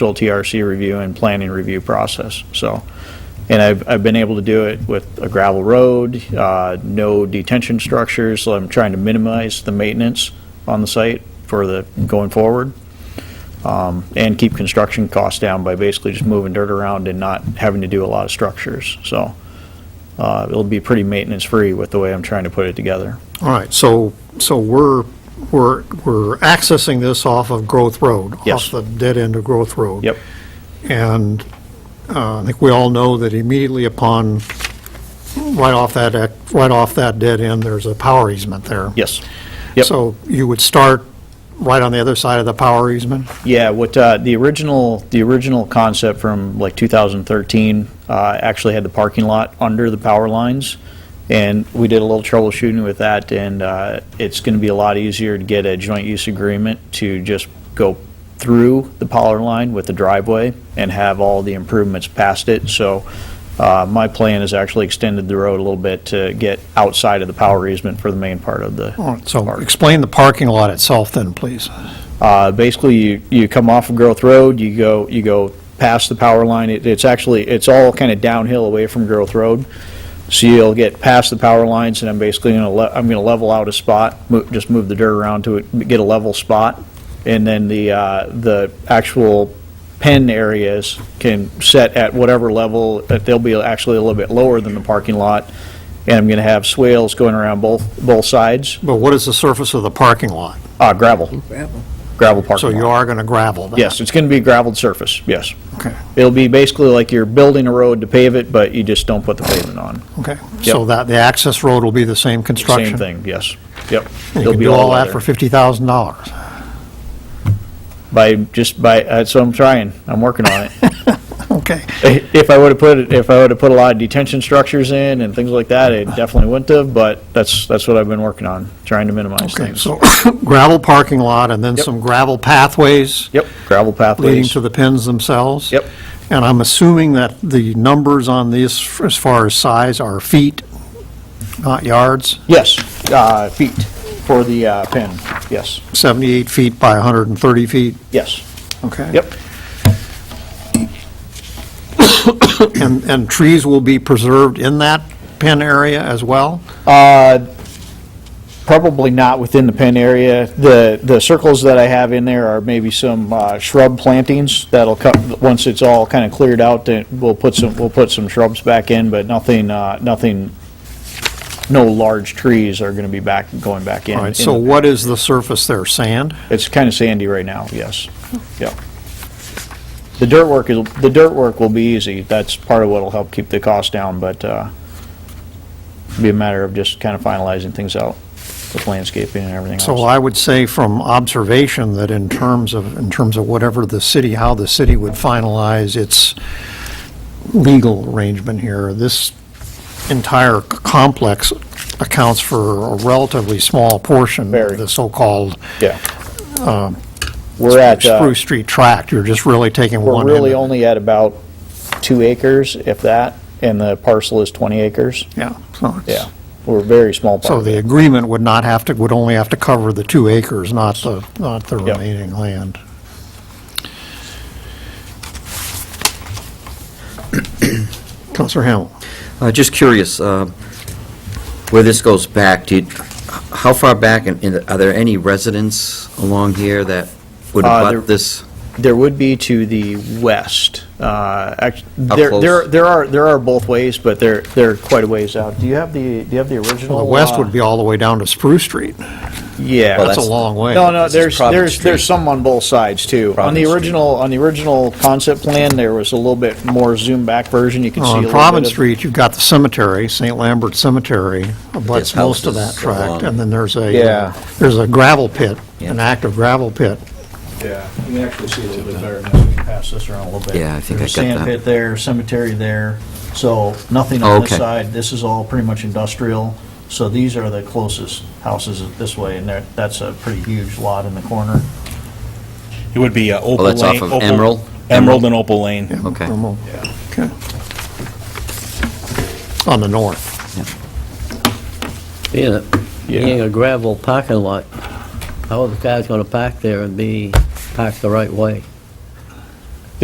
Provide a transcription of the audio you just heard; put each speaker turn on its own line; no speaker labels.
full TRC E review and planning review process, so. And I've, I've been able to do it with a gravel road, uh, no detention structures, so I'm trying to minimize the maintenance on the site for the, going forward. Um, And keep construction costs down by basically just moving dirt around and not having to do a lot of structures, so. uh, It'll be pretty maintenance-free with the way I'm trying to put it together.
All right, so, so we're, we're, we're accessing this off of Growth Road?
Yes.
Off the dead end of Growth Road?
Yep,
And uh, I think we all know that immediately upon, right off that, ec- right off that dead end, there's a power easement there.
yes. Yep.
So you would start right on the other side of the power easement?
Yeah, what, uh, the original, the original concept from like 2013, uh, actually had the parking lot under the power lines. And we did a little troubleshooting with that and, uh, it's gonna be a lot easier to get a joint use agreement to just go through the power line with the driveway and have all the improvements past it. So, uh, my plan is actually extended the road a little bit to get outside of the power easement for the main part of the.
All right, So
park.
explain the parking lot itself then, please.
Uh, Basically, you, you come off of Growth Road, you go, you go past the power line. It- It's actually, it's all kind of downhill away from Growth Road. So you'll get past the power lines, and I'm basically going to, I'm going to level out a spot, mo- just move the dirt around to it, get a level spot. And then the, uh, the actual pen areas can set at whatever level, that they'll be actually a little bit lower than the parking lot. And I'm going to have swales going around both, both sides,
But what is the surface of the parking lot?
Uh, gravel,
gravel.
gravel parking
So
lot.
you are going to gravel that?
Yes, it's going to be gravelled surface, yes.
Okay.
It'll be basically like you're building a road to pave it, but you just don't put the pavement on.
Okay, so that, the access road will be the same
Same
construction?
thing, yes. Yep.
And You
It'll
can
be
do all that
leather.
for $50,000.
By, just by, uh, so I'm trying, I'm working on it.
Okay.
If I would've put, if I would've put a lot of detention structures in and things like that, it definitely wouldn't have, but that's, that's what I've been working on, trying to minimize
Okay,
things.
so gravel parking lot and then
Yep.
some gravel pathways
Yep, gravel
leading
pathways.
to the pins themselves?
Yep.
And I'm assuming that the numbers on these, as far as size, are feet, not yards?
Yes, uh, feet for the uh, pin, yes,
78 feet by 130 feet?
yes,
Okay.
yep.
And, and trees will be preserved in that pin area as well?
Uh, Probably not within the pen area. The, the circles that I have in there are maybe some uh, shrub plantings that'll cut, once it's all kind of cleared out, then we'll put some, we'll put some shrubs back in, but nothing, uh, nothing, no large trees are going to be back, going back in.
All right, so what is the surface there, sand?
It's kind of sandy right now, yes. Yeah. The dirt work, is the dirt work will be easy. That's part of what'll help keep the cost down, but uh, be a matter of just kind of finalizing things out with landscaping and everything
So
else.
I would say from observation that in terms of, in terms of whatever the city, how the city would finalize its legal arrangement here, this entire c- complex accounts for a relatively small portion
Very.
of the so-called
Yeah. We're at, uh,
um, Spruce Street tract. You're just really taking
we're
one end.
really
of it.
only at about two acres, if that, and the parcel is 20 acres.
Yeah. so it's-
Yeah. We're a very small part.
So
of it.
the agreement would not have to, would only have to cover the two acres, not the, not the
Yep.
remaining land. Counselor Hamel?
Uh, Just curious, uh, where this goes back, do you- how far back, and and are there any residents along here that would
Uh, there-
abut this?
There would be to the west. Uh, act-
How
There,
close?
there there are, there are both ways, but they're, they're quite a ways out. Do you have the, do you have the original?
Well, the west
uh,
would be all the way down to Spruce Street.
Well,
Yeah.
That's a
that's-
long way.
No, no,
This is
there's,
Providence
there's,
Street.
there's some on both sides, too. On the
Providence Street.
original, on the original concept plan, there was a little bit more zoom back version. You can see a little
On
bit of.
Oh, Providence Street, you've got the cemetery, St. Lambert Cemetery, abuts
There's
most of that
houses
tract.
along-
And then there's a,
Yeah.
there's a gravel pit, an
Yeah.
active gravel pit.
Yeah, you can actually see a little bit better now. We can pass this around a little bit.
Yeah, I think I
There's a
got
Sand
that.
pit there, cemetery there, so nothing on this
Okay.
side. This is all pretty much industrial, so these are the closest houses this way, and there- that's a pretty huge lot in the corner.
It would be uh, Opal Lane.
that's off of
Opal-
Emerald?
Emerald and Opal Lane.
Okay.
Remote. Okay. On the north.
Being a, being a gravel parking lot, how are the cars going to park there and be parked the right way?